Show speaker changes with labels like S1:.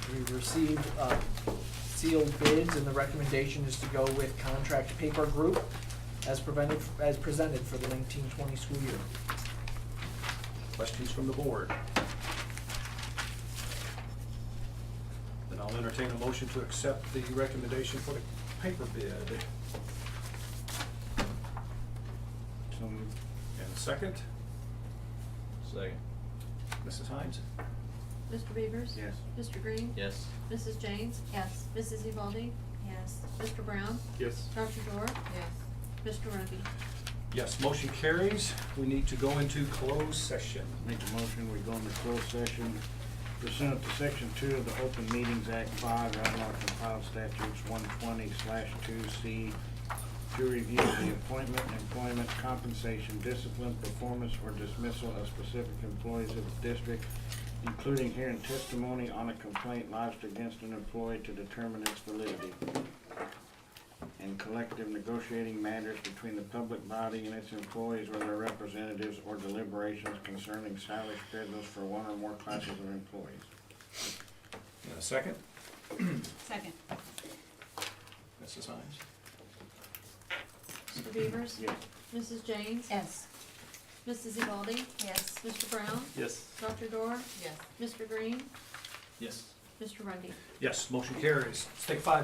S1: received uh, sealed bids, and the recommendation is to go with contract paper group as prevented, as presented for the nineteen twenty school year.
S2: Questions from the board? Then I'll entertain a motion to accept the recommendation for the paper bid.
S3: So moved.
S2: And second,
S3: Second.
S2: Mrs. Hines?
S4: Mr. Beavers?
S3: Yes.
S4: Mr. Green?
S3: Yes.
S4: Mrs. James? Yes. Mrs. Ewaldy? Yes. Mr. Brown?
S3: Yes.
S4: Dr. Dorr? Yes. Mr. Rudy?
S2: Yes, motion carries. We need to go into closed session.
S5: Make a motion, we go into closed session pursuant to section two of the Open Meetings Act five, Alabama compiled statutes one twenty slash two C to review the appointment, employment, compensation, discipline, performance, or dismissal of specific employees of the district, including hearing testimony on a complaint lodged against an employee to determine its validity and collective negotiating matters between the public body and its employees or their representatives or deliberations concerning salary schedules for one or more classes of employees.
S2: And a second,
S4: Second.
S2: Mrs. Hines?
S4: Mr. Beavers?
S5: Yes.
S4: Mrs. James? Yes. Mrs. Ewaldy? Yes. Mr. Brown?
S3: Yes.
S4: Dr. Dorr?
S6: Yes.
S4: Mr. Green?
S3: Yes.
S4: Mr. Rundy?
S2: Yes, motion carries. Let's take five